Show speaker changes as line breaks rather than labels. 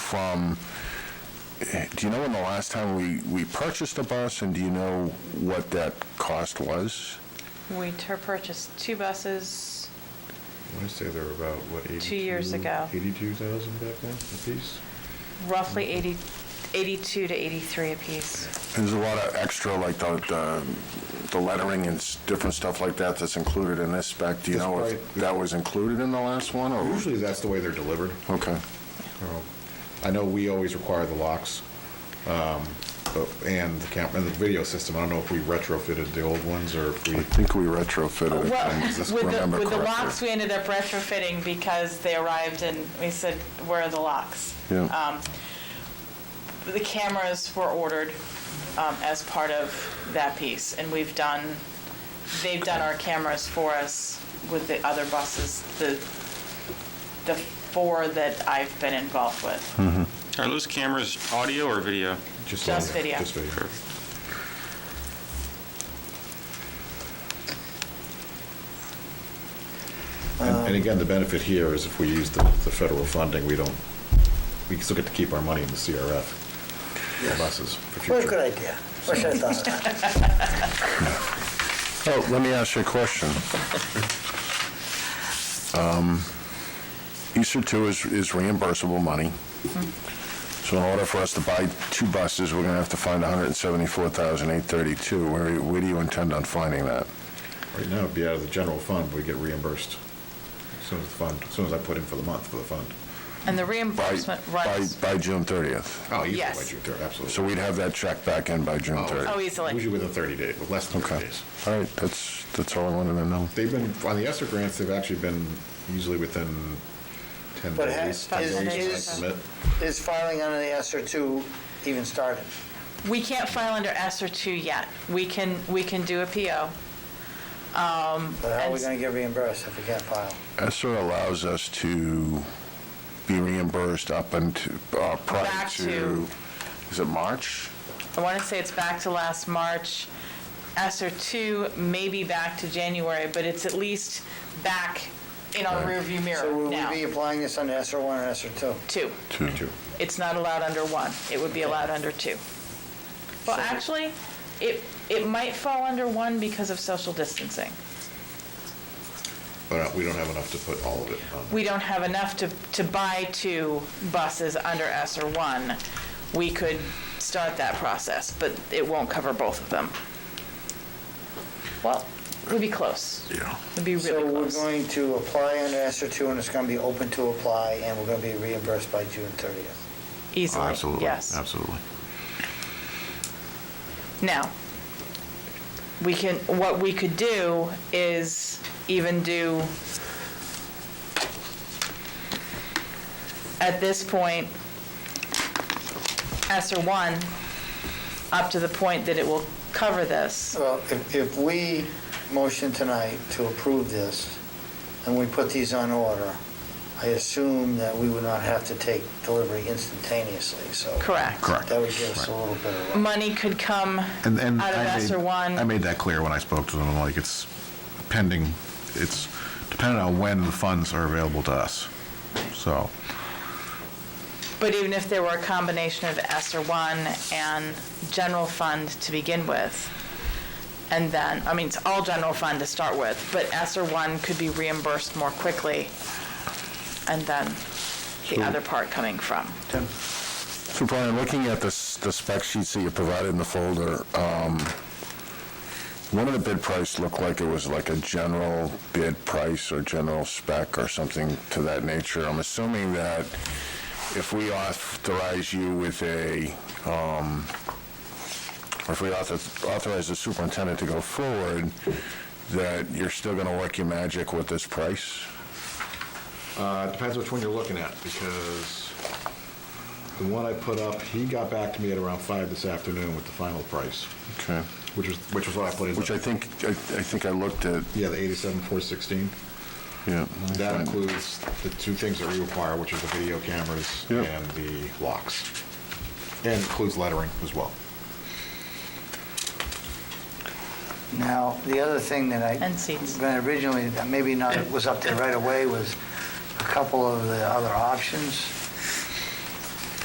from, eh, do you know when the last time we, we purchased a bus, and do you know what that cost was?
We tur- purchased two buses,
I want to say they're about, what, 82?
years ago.
82,000 back then, a piece?
roughly 80, 82 to 83 apiece.
There's a lot of extra, like the, the- the lettering and s- different stuff like that that's included in this spec. Do you
That's
know if
right.
that was included in the last one,
Mm-hmm.
or?
Oh, Usually that's the way they're delivered.
Okay.
Oh. I know we always require the locks, um, but- and the camera, and the video system. I don't know if we retrofitted the old ones or if we,
I think we retrofitted it.
Well,
if I
with
just
the,
remember
with the
correctly.
locks, we ended up retrofitting because they arrived and we said, where are the locks?
Yeah.
Um, The cameras were ordered um, as part of that piece, and we've done, they've done our cameras for us with the other buses, the, the four that I've been involved with.
Hmm.
Are those cameras audio or video?
just.
Just video.
Just video.
Um,
And and again, the benefit here is if we use the, the federal funding, we don't, we still get to keep our money in the CRF for buses for future.
Well, good idea. Wish I'd thought of that.
Oh, let me ask you a question. Um, Easter two is is reimbursable money. So in order for us to buy two buses, we're going to have to find $174,832. Where where do you intend on finding that?
Right now, it'd be out of the general fund, but we get reimbursed as soon as the fund, as soon as I put in for the month for the fund.
And the
By
reimbursement
by
runs,
By June 30th.
Oh, easily by
Yes.
June 3rd, absolutely.
So we'd have that check back in by June 30th.
Oh, easily.
Usually within 30 days, with less than 30
Okay.
days.
All right, that's, that's all I wanted to know.
They've been, on the ESSER grants, they've actually been usually within 10
But ha-
days. 10
is-
days, I
is-
submit.
Is filing under the S R two even started?
we can't file under S or two yet. We can, we can do a PO.
But how are we
And-
gonna get reimbursed if we can't file?
ESER allows us to be reimbursed up until, uh, prior
Back
to,
to-
is it March?
I want to say it's back to last March. S or two may be back to January, but it's at least back in our rearview
So
mirror
will we be
now.
applying this under S R one or S R two?
Two.
Two.
Two.
It's not allowed under one. It would be allowed under two. Well, actually, it, it might fall under one because of social distancing.
But uh, we don't have enough to put all of it on.
we don't have enough to, to buy two buses under or one, we could start that process, but it won't cover both of them. Well, we'd be close.
Yeah.
We'd be really
So we're
close.
going to apply under S R two and it's gonna be open to apply and we're gonna be reimbursed by June thirtieth.
Easily, yes.
absolutely.
Now, we can, what we could do is even do, at this point, ESER one, up to the point that it will cover this.
Well, if, if we motion tonight to approve this and we put these on order, I assume that we would not have to take delivery instantaneously, so.
Correct.
Correct.
That would give us a little bit of. a-
Money could come out of
And, and I
ESER
made,
one.
I made that clear when I spoke to them, like, it's pending, it's dependent on when the funds are available to us. So,
But even if there were a combination of ESER one and general fund to begin with, and then, I mean, it's all general fund to start with, but ESER one could be reimbursed more quickly, and then the other part coming from.
So Brian, looking at the s- the spec sheets that you provided in the folder, um, one of the bid price looked like it was like a general bid price or general spec or something to that nature. I'm assuming that if we authorize you with a, um, or if we author- authorize the superintendent to go forward, that you're still going to work your magic with this price?
uh, it depends which one you're looking at, because the one I put up, he got back to me at around five this afternoon with the final price,
Okay.
which was, which was what I put in.
Which I think, I I think I looked at,
Yeah, the eighty-seven, four sixteen.
Oh, yeah.
That includes the two things that we require, which is the video cameras
Yeah.
and the locks. And includes lettering as well.
Now, the other thing that I...
And seats.
that Originally, that maybe not, was up there right away, was a couple of the other options